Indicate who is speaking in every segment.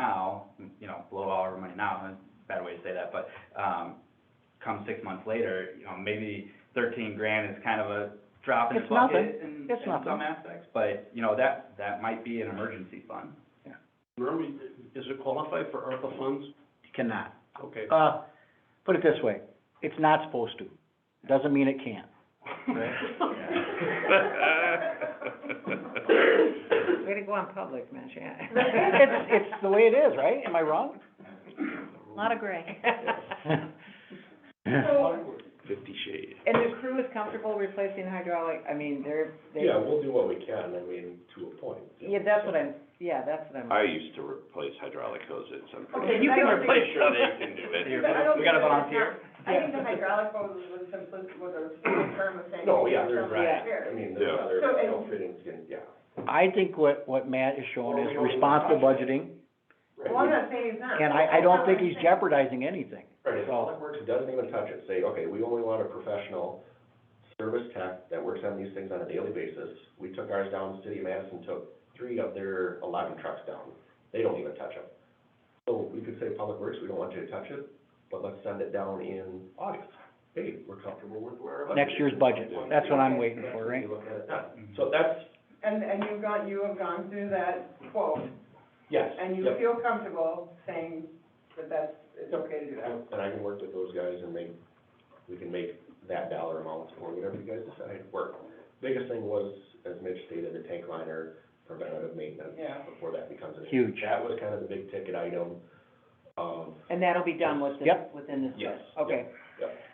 Speaker 1: now, you know, blow all our money now, that's a bad way to say that, but, um, come six months later, you know, maybe thirteen grand is kind of a drop in the
Speaker 2: It's nothing.
Speaker 1: bucket in, in
Speaker 2: It's nothing.
Speaker 1: some aspects, but, you know, that, that might be an emergency fund.
Speaker 3: Remy, is it qualified for ARPA funds?
Speaker 2: Cannot.
Speaker 3: Okay.
Speaker 2: Uh, put it this way, it's not supposed to, doesn't mean it can't.
Speaker 4: Way to go on public, Mitch, yeah.
Speaker 2: It's, it's the way it is, right? Am I wrong?
Speaker 5: Lot of gray.
Speaker 3: Fifty shades.
Speaker 4: And the crew is comfortable replacing hydraulic, I mean, they're, they,
Speaker 6: Yeah, we'll do what we can, I mean, to a point.
Speaker 4: yeah, that's what I'm, yeah, that's what I'm.
Speaker 7: I used to replace hydraulic hoses, I'm
Speaker 8: Okay,
Speaker 7: pretty,
Speaker 8: you can
Speaker 7: I'm pretty sure they can do it.
Speaker 1: We
Speaker 8: But I don't
Speaker 1: got a
Speaker 8: think that's
Speaker 1: volunteer.
Speaker 8: I think the hydraulic hose was a simpli was a simple term of saying.
Speaker 6: No, yeah, there's,
Speaker 8: Right.
Speaker 6: I mean, there's
Speaker 7: Yeah.
Speaker 6: other
Speaker 8: So, and-
Speaker 6: outfittings, and, yeah.
Speaker 2: I think what, what Matt is showing is responsible budgeting,
Speaker 6: right.
Speaker 8: Well, I'm not saying he's not.
Speaker 2: and I, I don't think he's jeopardizing anything.
Speaker 6: Right, if Public Works doesn't even touch it, say, okay, we only want a professional service tech that works on these things on a daily basis. We took ours down, City of Madison took three of their eleven trucks down, they don't even touch them. So we could say, Public Works, we don't want you to touch it, but let's send it down in August. Hey, we're comfortable with where our.
Speaker 2: Next year's budget, that's what I'm waiting for, right?
Speaker 6: Look at it then. So that's,
Speaker 8: And, and you've gone, you have gone through that quote,
Speaker 6: yes.
Speaker 8: and you
Speaker 6: yep.
Speaker 8: feel comfortable saying that that's, it's okay to do that.
Speaker 6: And I can work with those guys and make, we can make that dollar amount or whatever you guys decide work. Biggest thing was, as Mitch stated, the tank liner preventative maintenance
Speaker 8: Yeah.
Speaker 6: before that becomes an issue.
Speaker 2: Huge.
Speaker 6: That was kind of the big ticket item, um,
Speaker 4: And that'll be done within,
Speaker 2: Yep.
Speaker 4: within this
Speaker 6: Yes,
Speaker 4: budget, okay.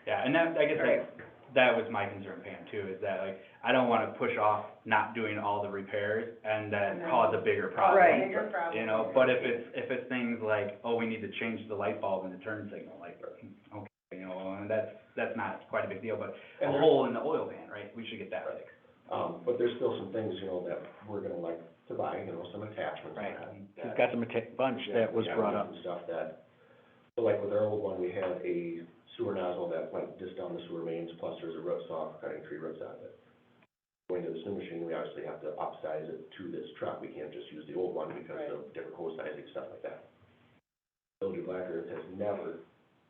Speaker 1: Yeah, and that, I guess
Speaker 4: Right.
Speaker 1: that, that was my concern, Pam, too, is that like, I don't wanna push off not doing all the repairs and then
Speaker 8: No.
Speaker 1: cause a bigger problem.
Speaker 4: Right.
Speaker 8: Bigger problem.
Speaker 1: You know, but if it's, if it's things like, oh, we need to change the light bulb in the turn signal, like, okay, you know, and that's, that's not quite a big deal, but a
Speaker 6: And there's-
Speaker 1: hole in the oil pan, right, we should get that fixed.
Speaker 6: um, but there's still some things, you know, that we're gonna like to buy, you know, some attachments and
Speaker 2: Right.
Speaker 6: that.
Speaker 2: He's got some atta- bunch that was
Speaker 6: Yeah,
Speaker 2: brought up.
Speaker 6: some Stuff that, so like with our old one, we had a sewer nozzle that went just down the sewer mains, plus there's a root saw for cutting tree roots out of it. Going to this new machine, we obviously have to upsize it to this truck, we can't just use the old one because of different hose sizing, stuff like that. Village of Black Earth has never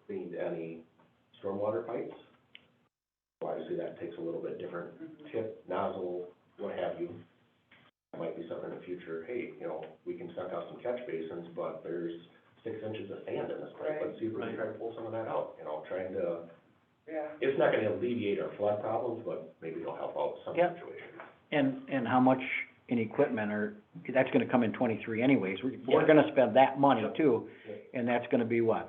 Speaker 6: cleaned any stormwater pipes. So Obviously, that takes a little bit different tip, nozzle, what have you. That might be something in the future, hey, you know, we can suck out some catch basins, but there's six inches of sand in this pipe, let's see if we can try to pull some of that out, you know, trying to,
Speaker 8: Yeah.
Speaker 6: it's not gonna alleviate our flood problems, but maybe it'll help out some
Speaker 2: Yep.
Speaker 6: situations.
Speaker 2: And, and how much in equipment or, that's gonna come in twenty-three anyways, we're, we're gonna spend that money too, and that's gonna be what?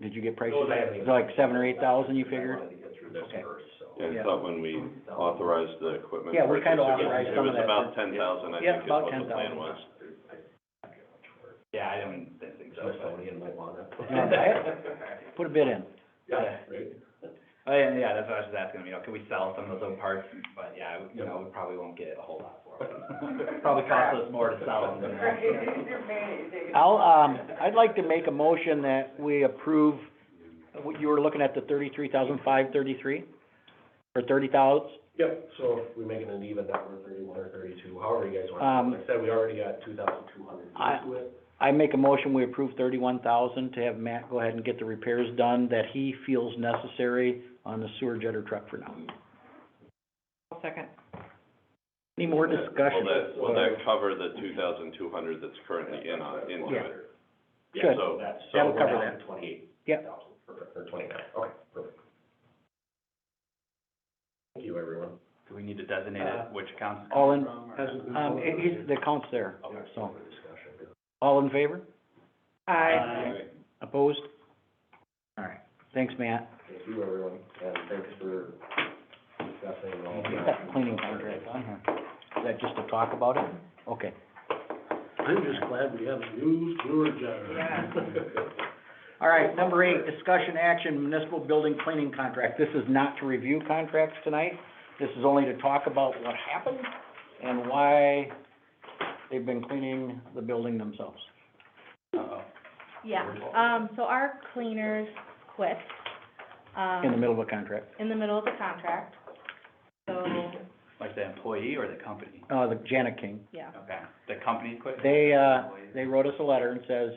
Speaker 2: Did you get prices?
Speaker 6: Those I haven't even-
Speaker 2: Like seven or eight thousand, you figured?
Speaker 6: I wanted to get through this
Speaker 2: Okay.
Speaker 6: first, so.
Speaker 7: Yeah,
Speaker 2: Yeah.
Speaker 7: I thought when we authorized the equipment
Speaker 2: Yeah, we
Speaker 7: purchase, it
Speaker 2: kinda
Speaker 7: was,
Speaker 2: authorized
Speaker 7: it
Speaker 2: some
Speaker 7: was
Speaker 2: of that
Speaker 7: about
Speaker 2: for-
Speaker 7: ten thousand, I
Speaker 2: Yeah,
Speaker 7: think, is
Speaker 2: about
Speaker 7: what the
Speaker 2: 10,000.
Speaker 7: plan was.
Speaker 1: Yeah, I don't didn't think so, but.
Speaker 6: Smithsonian might wanna.
Speaker 2: wanna buy Put a bid in.
Speaker 6: Yeah, right?
Speaker 1: Oh, yeah, yeah, that's what I was just asking, you know, could we sell some of those old parts, but yeah, you know, we probably won't get a whole lot for them. Probably cost us more to sell them than.
Speaker 8: You're mad, David.
Speaker 2: I'll, um, I'd like to make a motion that we approve, what you were looking at the thirty-three thousand five thirty-three? Or thirty thousand,
Speaker 6: Yep, so if we make it an even number, thirty-one or thirty-two, however you guys
Speaker 2: Um,
Speaker 6: want, like I said, we already got two thousand two hundred
Speaker 2: I-
Speaker 6: into it.
Speaker 2: I make a motion, we approve thirty-one thousand to have Matt go ahead and get the repairs done that he feels necessary on the sewer jetter truck for now.
Speaker 4: I'll second.
Speaker 2: Any more
Speaker 7: Will
Speaker 2: discussion?
Speaker 7: that, will that cover the two thousand two hundred that's currently in on, into
Speaker 2: Yeah.
Speaker 7: it?
Speaker 2: Good.
Speaker 7: So,
Speaker 6: That's, so
Speaker 2: That'll
Speaker 6: we're
Speaker 2: cover
Speaker 6: down
Speaker 2: that.
Speaker 6: to twenty-eight
Speaker 2: Yep.
Speaker 6: thousand, perfect, or twenty-nine, okay, perfect. Thank you, everyone.
Speaker 1: Do we need to designate
Speaker 3: Uh,
Speaker 1: which accounts it's
Speaker 2: all
Speaker 1: coming
Speaker 2: in-
Speaker 1: from, or-
Speaker 3: Hasn't been
Speaker 2: Um, it,
Speaker 3: voted on
Speaker 2: he's,
Speaker 3: yet.
Speaker 2: the count's there,
Speaker 6: Okay,
Speaker 2: so,
Speaker 6: for discussion.
Speaker 2: all in favor? uh,
Speaker 4: Aye.
Speaker 2: Opposed? All right, thanks, Matt.
Speaker 6: Thank you, everyone, and thanks for discussing all
Speaker 2: Get
Speaker 6: that.
Speaker 2: that cleaning contract on here. Is that just to talk about it? Okay.
Speaker 3: I'm just glad we have a new sewer generator.
Speaker 2: All right, number eight, discussion action, municipal building cleaning contract. This is not to review contracts tonight. This is only to talk about what happened and why they've been cleaning the building themselves.
Speaker 1: Uh-oh.
Speaker 5: Yeah, um, so our cleaners quit, um.
Speaker 2: In the middle of a contract.
Speaker 5: in the middle of the contract. So
Speaker 1: Like the employee or the company?
Speaker 2: Uh, the Janet King,
Speaker 5: yeah.
Speaker 1: Okay, the company quit?
Speaker 2: they, uh,
Speaker 1: Employee.
Speaker 2: they wrote us a letter and says,